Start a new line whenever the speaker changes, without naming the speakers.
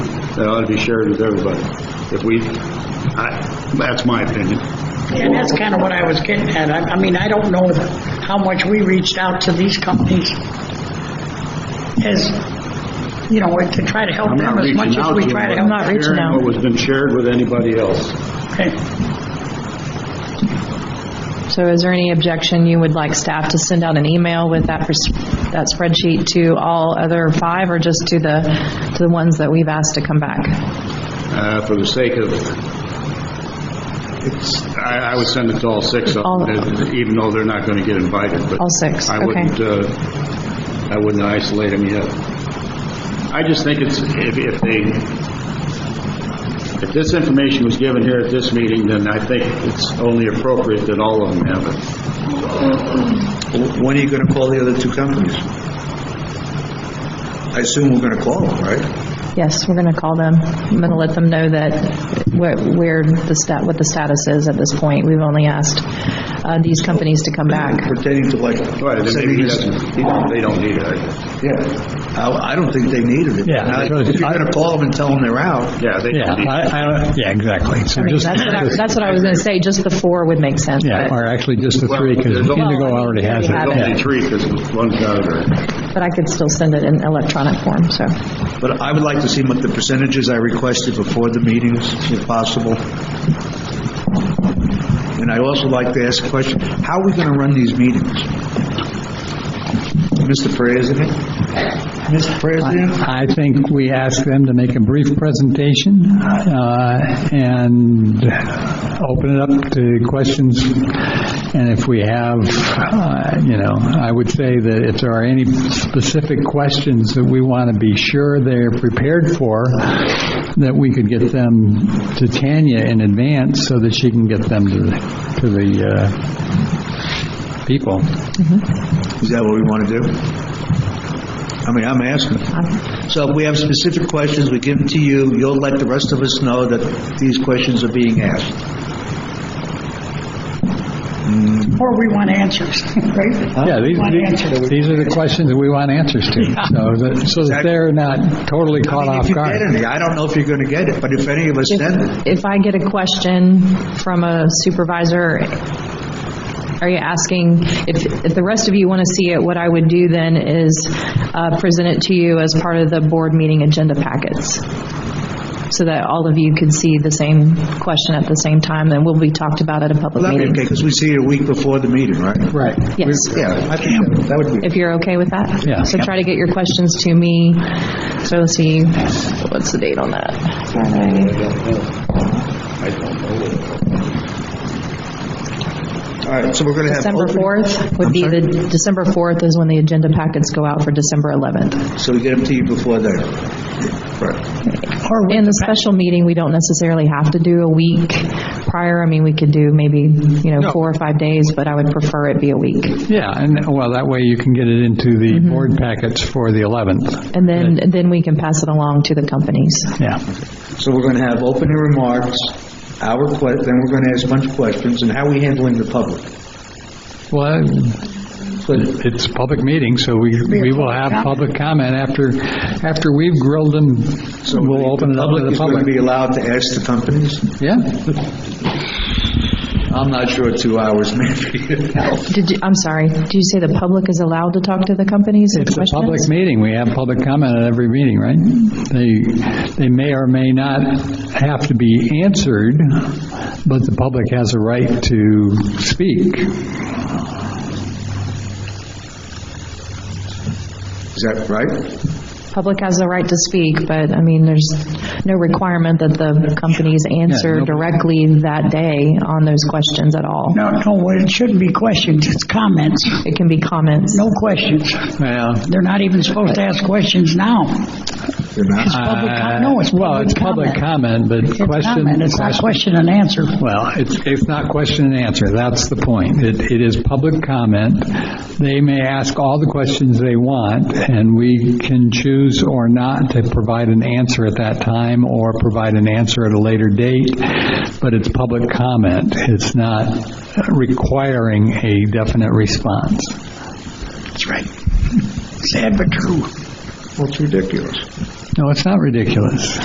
that ought to be shared with everybody. If we, I, that's my opinion.
And that's kind of what I was getting at. I, I mean, I don't know how much we reached out to these companies as, you know, to try to help
I'm not
them as
reaching
much as
out
we
to you,
try to
but
help.
Sharing what was been shared with anybody else.
Okay.
So is there any objection you would like staff to send out an email with that, pers- that spreadsheet to all other five, or just to the, to the ones that we've asked to come back?
Uh, for the sake of, it's, I, I would send it to all six of
All-
them, even though they're not gonna get invited, but.
All six,
I
okay.
wouldn't, uh, I wouldn't isolate them yet. I just think it's, if, if they, if this information was given here at this meeting, then I think it's only appropriate that all of them have it.
Wh- When are you going to call the other two companies? I assume we're going to call them, right?
Yes, we're going to call them. I'm going to let them know that where, where the stat, what the status is at this point. We've only asked uh, these companies to come back.
Pertaining to like.
Right, and maybe he doesn't- they don't need it, I guess.
Yeah, I, I don't think they needed it.
Yeah.
Now, If you're going to call them and tell them they're out,
Yeah, they
Yeah,
don't need it.
I, I don't, yeah, exactly. So
I mean,
just,
that's what I, that's what I was going to say, just the four would make sense.
yeah,
but-
or actually just the three, because
Well, there's only-
Indigo already has it.
Well,
There's only
Yeah.
three, because one's out of there.
But I could still send it in electronic form, so.
but I would like to see what the percentages I requested before the meetings, if possible. And I also like to ask a question, how are we going to run these meetings? Mr. President? Mr. President?
I think we ask them to make a brief presentation uh, and open it up to questions. And if we have, uh, you know, I would say that if there are any specific questions that we want to be sure they're prepared for, that we could get them to Tanya in advance so that she can get them to the, to the uh, people.
Is that what we want to do? I mean, I'm asking. So if we have specific questions, we give them to you, you'll let the rest of us know that these questions are being asked.
Or we want answers, right?
Yeah, these,
Want
these-
answers.
these are the questions that we want answers to, so that, so that they're not totally
I
caught
mean,
off
if you
guard.
get any, I don't know if you're going to get it, but if any of us send it,
If I get a question from a supervisor, are you asking, if, if the rest of you want to see it, what I would do then is uh, present it to you as part of the board meeting agenda packets, so that all of you could see the same question at the same time, and will be talked about at a
well,
public
that'd be
meeting.
okay, because we see it a week before the meeting, right?
Right,
Yes,
Yeah, I think that that would be,
if you're okay with that?
Yeah.
So try to get your questions to me, so let's see, what's the date on that? Friday.
all right, so we're going to have.
December
open-
4th would
I'm
be
sorry?
the, December 4th is when the agenda packets go out for December 11th.
So we get them to you before then. Right.
In the special meeting, we don't necessarily have to do a week prior. I mean, we could do maybe, you know, four or five days, but I would prefer it be a week.
yeah, and, well, that way you can get it into the board packets for the 11th,
And then, then we can pass it along to the companies.
yeah.
So we're going to have opening remarks, our que, then we're going to ask a bunch of questions, and how are we handling the public?
Well, it's a public meeting, so we, we will have public comment after, after we've grilled them, we'll open it up to the
is going to be
public.
allowed to ask the companies?
Yeah,
I'm not sure two hours maybe.
Did you, I'm sorry, did you say the public is allowed to talk to the companies and
it's a public
questions?
meeting, we have public comment at every meeting, right? They, they may or may not have to be answered, but the public has a right to speak.
Is that right?
Public has the right to speak, but I mean, there's no requirement that the companies answer
no-
directly that day on those questions at all.
No, no, well, it shouldn't be questions, it's comments.
It can be comments.
No questions.
Well,
They're not even supposed to ask questions now.
You're not?
public com- no, it's
uh, Well, it's
public
public comment, but
It's
question.
comment, it's not
question-
question and answer.
Well, it's, it's not question and answer, that's the point. It, it is public comment. They may ask all the questions they want, and we can choose or not to provide an answer at that time, or provide an answer at a later date, but it's public comment. It's not requiring a definite response.
That's right. Sad but true.
Well, it's ridiculous.
No, it's not ridiculous.